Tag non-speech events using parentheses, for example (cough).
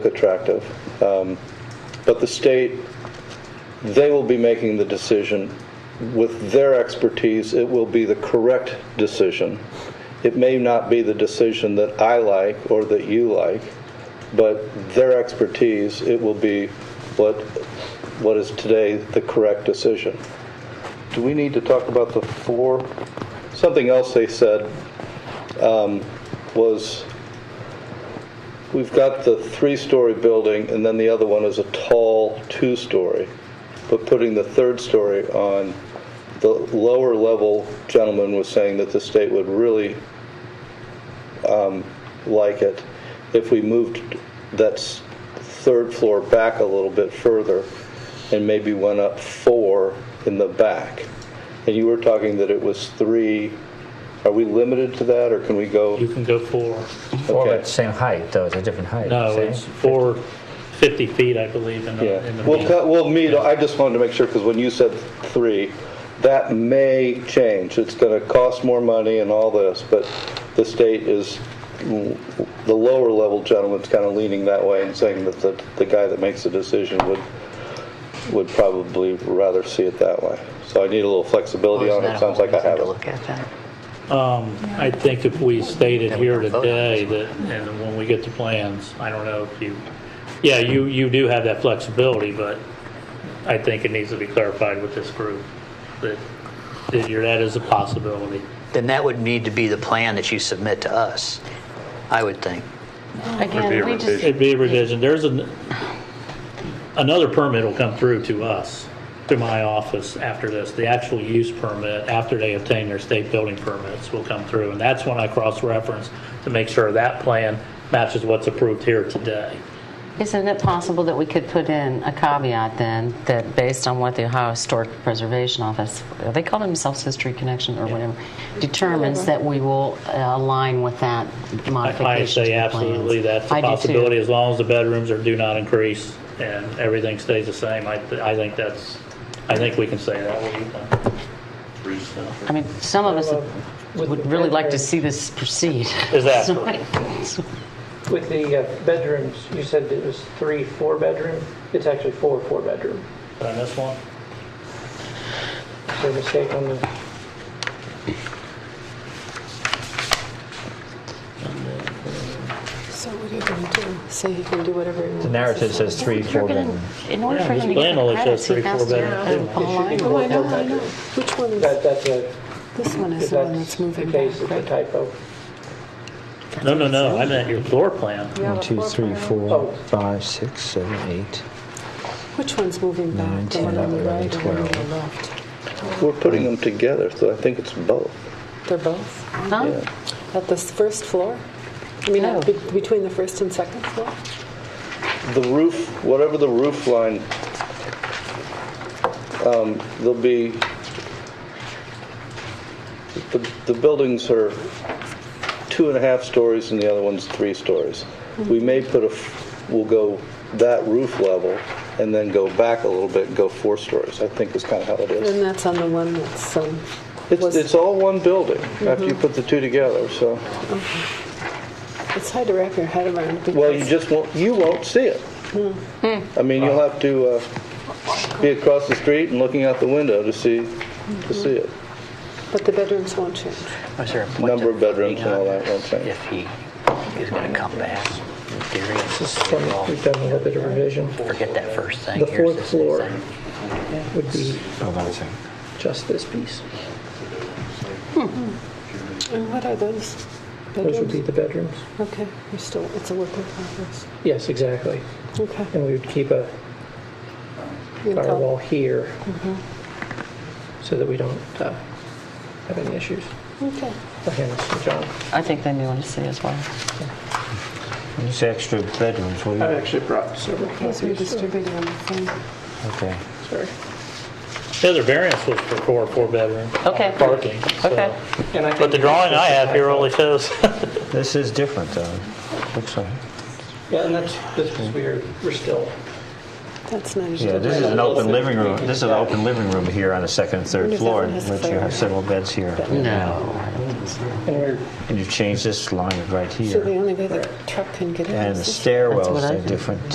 attractive. Um, But the state, they will be making the decision. With their expertise, it will be the correct decision. It may not be the decision that I like or that you like, but their expertise, it will be what, what is today the correct decision. Do we need to talk about the four? Something else they said um, was, We've got the three-story building, and then the other one is a tall two-story, but putting the third story on the lower level gentleman was saying that the state would really um, like it if we moved that s- third floor back a little bit further and maybe went up four in the back. And you were talking that it was three. Are we limited to that, or can we go? You can go four. Or Okay. at the same height, though, it's a different height. No, see? it's four, 50 feet, I believe, in the, in Yeah, the we'll, meeting. cut- we'll meet, I just wanted to make sure, because when you said three, that may change. It's going to cost more money and all this, but the state is, the lower level gentleman's kind of leaning that way and saying that the, the guy that makes the decision would, would probably rather see it that way. So I need a little flexibility Oh, on it, sounds like I have To it. look at that. Um, I think if we stated Then we here don't vote. today that, and when we get the plans, I don't know if you, yeah, you, you do have that flexibility, but I think it needs to be clarified with this group, that, that you're- that is a possibility. Then that would need to be the plan that you submit to us, I would think. Again, we just, It'd be a revision. There's an, another permit will come through to us, to my office after this. The actual use permit, after they obtain their state building permits, will come through. And that's when I cross-reference to make sure that plan matches what's approved here today. isn't it possible that we could put in a caveat then, that based on what the Ohio Historic Preservation Office, they call themselves History Connection or whatever, determines that we will uh, align with that modification I to say the plans. absolutely, that's a I do too. possibility, as long as the bedrooms are, do not increase and everything stays the same. I, I think that's, I think we can say that. What do you think? I mean, some of us would really like to see this proceed. (laughs) Exactly. So- With the uh, bedrooms, you said it was three four-bedroom? It's actually four four-bedroom. Did I miss one? Is there a mistake on the, So what are you going to do? Say he can do whatever he wants? The narrative says three, If you're four gonna- bedroom. In order Yeah, for his him to get plan only the shows credits, he three, has four to bedrooms. uh, align It should Oh, with I know, I know. Which one is, that, that's a, this one if is the one that's that's the moving case, it's back, a right? typo. No, no, no, I meant your floor plan. Yeah, One, the two, floor three, plan. four, Oh. five, six, seven, eight. Which one's moving Nine, back? The one ten, on the eleven, right and one on the twelve. left? We're putting them together, so I think it's both. They're both Huh? at the first floor? I mean, No. be- between the first and second floor? the roof, whatever the roof line, um, there'll be, the, the buildings are two and a half stories and the other one's three stories. We may put a, f- we'll go that roof level and then go back a little bit and go four stories, I think is kind of how it is. And that's on the one that's, um, It's, was- Mm-hmm. it's all one building after you put the two together, so, it's hard to wrap your head around well, you because just won't, you won't see it. I mean, you'll have to, uh, be across the street and looking out the window to see, to see it. but the bedrooms won't change. Was there a point Number of of bedrooms and all voting on that, I'm saying. If he is going to come back, in theory, it's the Just same done- law. We've done a little bit of revision. Forget that first thing. The Here's fourth this new floor. thing. Would be Oh, that's it. just this piece. And what are those? Those would be Bedrooms? the bedrooms. Okay, we're still, it's a work in progress. Yes, exactly. Okay. And we would keep a You can call- firewall here Mm-hmm. so that we don't uh, have any issues. Okay. I'll hand this to John. I think they may want to see as well. When you say extra bedrooms, what do I've you, actually brought several These were copies. distributed on the phone. okay. Sorry. Yeah, their variance was for four, four bedroom. Okay. Parking. so- Okay. And I But think the drawing I have here only shows, This is different, though. Looks like. Yeah, and that's, that's because we're, we're still That's not usually. Yeah, this is an open living room. This is an open living room here on the second and Wonder third if that floor, one has which you have flares. several beds here. No, I don't think so. And we're, And you've changed this line right So the here. only way the truck can get in And is the this way. That's what I stairwells are think. different.